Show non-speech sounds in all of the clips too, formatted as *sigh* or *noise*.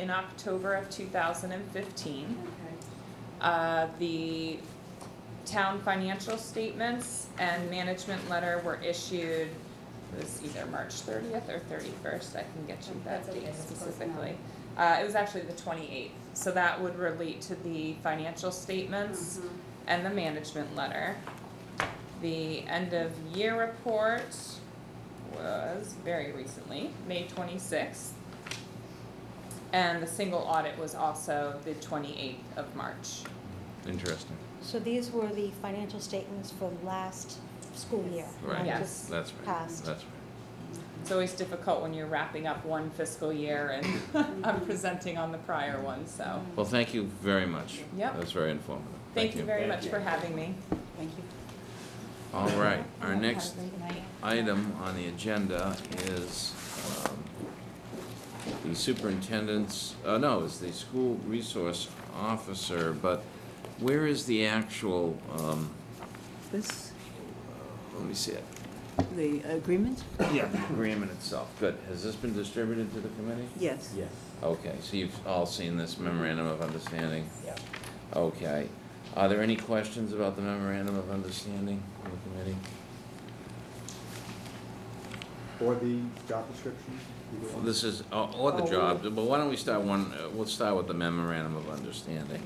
in October of two thousand and fifteen. Okay. Uh, the town financial statements and management letter were issued, it was either March thirtieth or thirty-first, I can get you That's that okay, date that's close enough. specifically. Uh, it was actually the twenty-eighth, so that would relate to the financial statements Mhm. and the management letter. The end of year report was very recently, May twenty-sixth. And the single audit was also the twenty-eighth of March. Interesting, So these were the financial statements for last school year, right, not Yes. just that's right, passed. that's right. It's always difficult when you're wrapping up one fiscal year and *laughs* I'm presenting on the prior one, so. Well, thank you very much. Yep. That's very informative, Thank you very Thank much you. for having me. Thank you. All right, our Have a next great night. item on the agenda is um, the superintendent's, uh, no, it's the school resource officer, but where is the actual, um, This, let me see it. the agreement? Yeah, the agreement itself. Good, has this been distributed to the committee? Yes. Yes. Okay, so you've all seen this memorandum of understanding? Yeah. Okay. Are there any questions about the memorandum of understanding from the committee? Or the job description? either Well, one. This is, or or the job, but why don't we start one, uh, we'll start with the memorandum of understanding.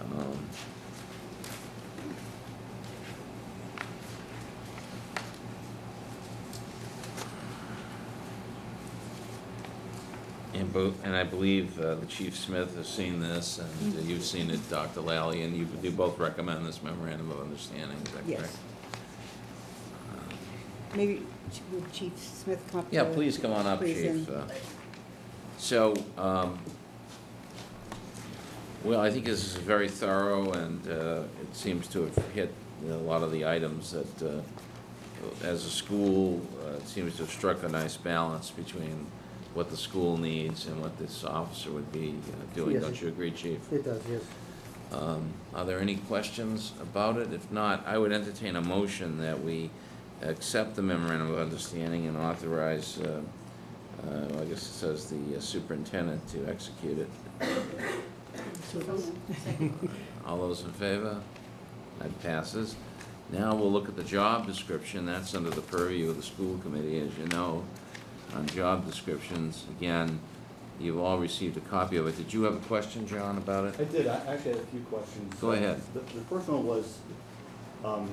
Um, And both, and I believe uh, the Chief Smith has seen this, and uh, you've seen it, Dr. Lally, and you, you both recommend this memorandum of understanding, is that Yes. correct? Uh, Maybe Ch- would Chief Smith come up to? Yeah, please come on up, please, chief. and- Uh, So, um, well, I think this is very thorough and, uh, it seems to have hit you know, a lot of the items that, uh, as a school, uh, it seems to have struck a nice balance between what the school needs and what this officer would be uh, doing. Yes. Don't you agree, chief? It does, yes. Um, Are there any questions about it? If not, I would entertain a motion that we accept the memorandum of understanding and authorize, uh, uh, I guess it says the uh, superintendent to execute it. *laughs* All those in favor? That passes. Now we'll look at the job description. That's under the purview of the school committee, as you know. On job descriptions, again, you've all received a copy of it. Did you have a question, John, about it? I did, I actually had a few questions. Go ahead. The, the first one was, um,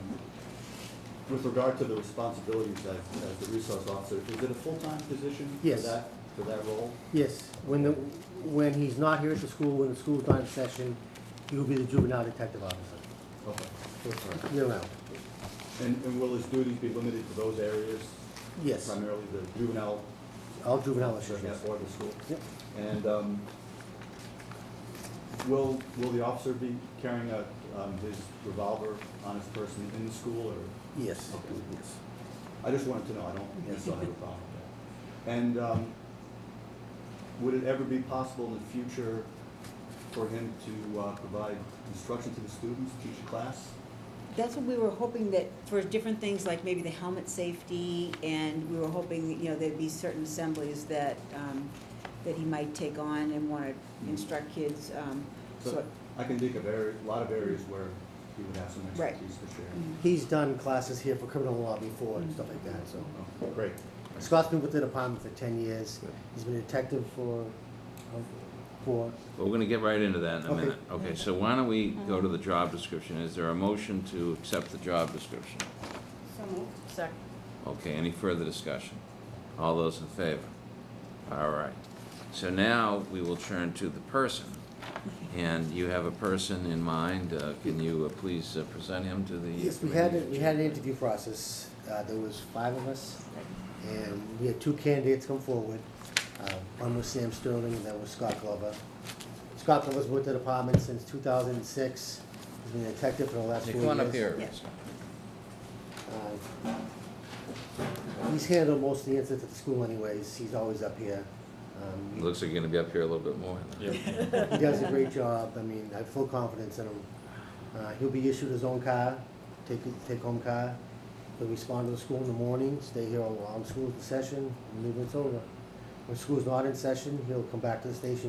with regard to the responsibilities as, as the resource officer, is it a full-time position? Yes. For that, for that role? Yes, when the, when he's not here at the school, when the school's not in session, he will be the juvenile detective officer, Okay. year round. And, and will his duties be limited to those areas? Yes, Primarily the juvenile, all juvenile officer issues, yes. or the school? Yep. And, um, will, will the officer be carrying a, um, his revolver on his person in the school or? Yes, Okay. yes. I just wanted to know, I don't, yes, I have a problem with that. And, um, would it ever be possible in the future for him to, uh, provide instruction to the students, teach a class? That's what we were hoping that for different things like maybe the helmet safety and we were hoping, that, you know, there'd be certain assemblies that, um, that he might take on and wanna instruct kids, um, So so. I can think of area, a lot of areas where he would have some Right. expertise to share. Mm, He's done classes here for criminal law before and stuff like that, so. Oh, Great. Scott's been with the department for ten years. He's been a detective for, uh, for, Well, We're gonna get right into that in a Okay. minute. Okay, so why don't we go to the job description? Is there a motion to accept the job description? So moved. Second. Okay, any further discussion? All those in favor? All right. So now we will turn to the person. And you have a person in mind. Uh, Can you uh, please uh, present him to the committee? Yes, we had, a- we had an interview process. Uh, there was five of us, and we had two candidates come forward. Uh, One was Sam Sterling, and that was Scott Glover. Scott Glover's been with the department since two thousand and six. He's been a detective for the last Hey, four years. Come on up here. Yeah. Uh, He's handled most of the incidents at the school anyways. He's always up here. Um, he- Looks like you're gonna be up here a little bit more. He does a great job. I mean, I have full confidence in him. Uh, he'll be issued his own car, take, take home car. He'll respond to the school in the morning, stay here while school's in session, and leave when it's over. When school's not in session, he'll come back to the station